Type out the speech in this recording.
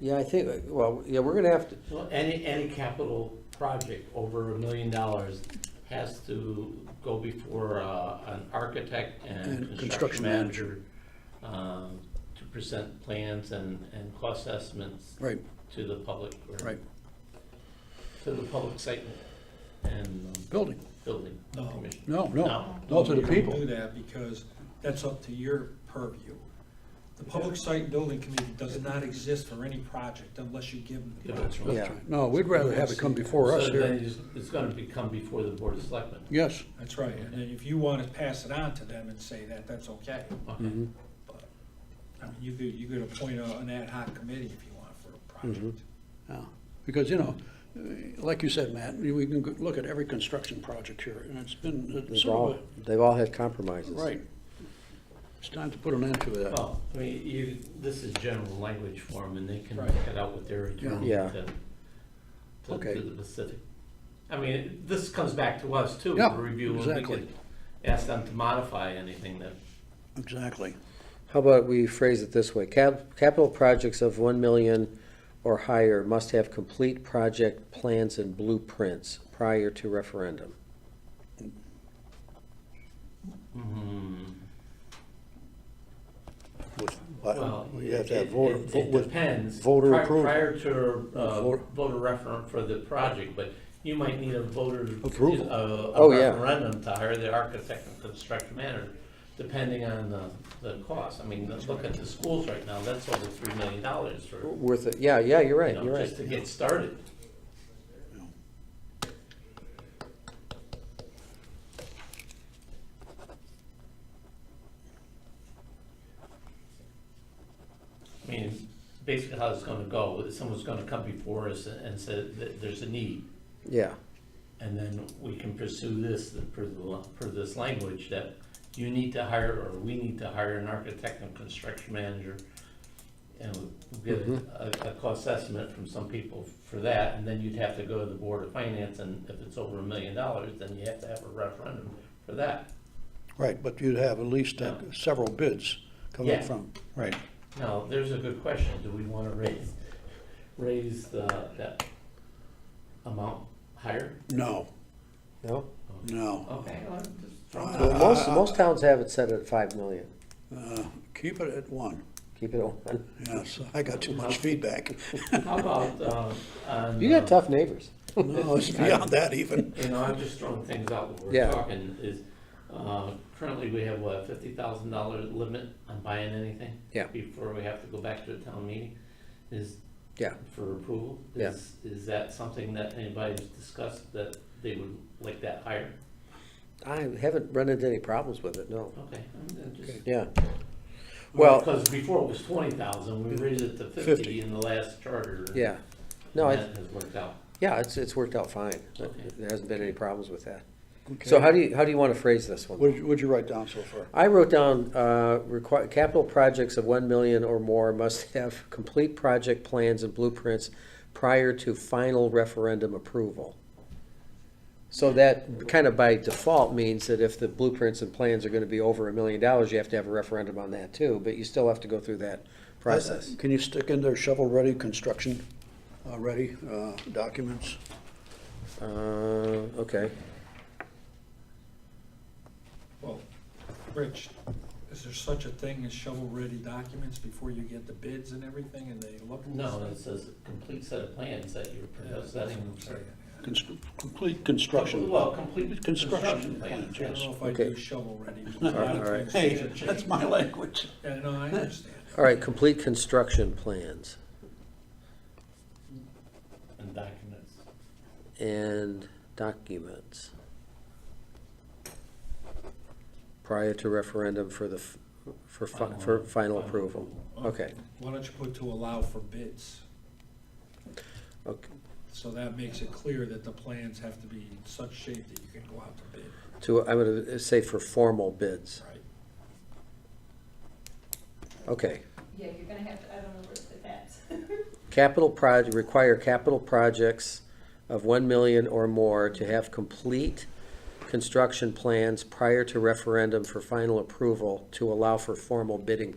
Yeah, I think, well, yeah, we're gonna have to, Well, any, any capital project over a million dollars has to go before uh, an architect and construction manager um, to present plans and, and cost estimates Right, to the public. or Right. To the public site and um, building, building No. commission. no, no, No. no to the You don't people. Do that because that's up to your purview. The Public Site and Building Committee does not exist for any project unless you give them the Yeah, project. that's right. yeah, No, we'd rather have it come before us So then here. it's- it's gonna be, come before the board of selectmen. Yes, That's right, and then if you want to pass it on to them and say that, that's okay. Okay. But, I mean, you could, you could appoint a- an ad hoc committee if you want for a project. Mm-hmm. yeah, because, you know, uh, like you said, Matt, we can go- look at every construction project here, and it's been it's they've sort all, of a, they've all had compromises. right. It's time to put an end to that. Well, I mean, you, this is general language for them, and they can Right. work it out with their attorney Yeah. to, to- Okay. to the Pacific. I mean, this comes back to us too, Yeah, for review, and we exactly. could ask them to modify anything that, Exactly. How about we phrase it this way, cap, capital projects of one million or higher must have complete project plans and blueprints prior to referendum. Mm-hmm. well, We have it to have it- voter, it vote with, depends. voter Pri- approval. Prior to, uh, voter- voter referendum for the project, but you might need a voter. Approval. A, a Oh, yeah. referendum to hire the architect and construction manager, depending on the, the cost. I mean, look at the schools right now, that's over three million dollars for. Worth it, yeah, yeah, you're you right, know, you're right. Just to get started. I mean, basically how it's gonna go, is someone's gonna come before us and say that there's a need, Yeah, and then we can pursue this, per, the- per this language, that you need to hire, or we need to hire an architect and construction manager. And we'll get a, a cost estimate from some people for that, and then you'd have to go to the Board of Finance, and if it's over a million dollars, then you have to have a referendum for that. Right, but you'd have at least uh, Yeah. several bids coming Yeah. from, right. Now, there's a good question, do we wanna raise, raise the, that amount higher? No, no? no. Okay, well, I'm just. Well, most, most towns have it set at five million, Uh, Keep it at one. keep it on. Yes, I got too much feedback. How about, um, on. You got uh, tough neighbors. No, it's beyond that even. You know, I'm just throwing things out when we're Yeah. talking, is, uh, currently we have, what, fifty thousand dollar limit on buying anything? Yeah. Before we have to go back to the town meeting, is. Yeah. For approval? Yeah. Is, is that something that anybody's discussed, that they would like that higher? I haven't run into any problems with it, no. Okay. I'm- I'm just- Yeah, Well- Because before it was twenty thousand, we raised it to fifty 50. in the last charter. and yeah. No, I, that has worked out. yeah, it's, it's worked out fine. Okay. There hasn't been any problems with that. So how do you, how do you want to phrase this one? What'd you- what'd you write down so far? I wrote down, uh, requi- capital projects of one million or more must have complete project plans and blueprints prior to final referendum approval. So that kind of by default means that if the blueprints and plans are gonna be over a million dollars, you have to have a referendum on that too, but you still have to go through that process. Can you stick in there shovel-ready, construction-ready documents? Uh, okay, Well, Rich, is there such a thing as shovel-ready documents before you get the bids and everything and they look? at No, this? it says a complete set of plans that you're Yeah, that's what presenting I'm saying, yeah. Constr- Complete construction. Well, complete construction Construction plan, plans, I don't yes. know if I Okay. do shovel-ready. right, all right. Hey, that's my language. Yeah, no, I understand. all right, complete construction plans and documents. and documents prior to referendum for the, f- for, fi- for final approval. Okay, Why don't you put to allow for bids? okay. So that makes it clear that the plans have to be in such shape that you can go out to bid. To, I would say for formal bids. Right. Okay. Yeah, you're gonna have to, I don't know where to put that. Capital proj, require capital projects of one million or more to have complete construction plans prior to referendum for final approval to allow for formal bidding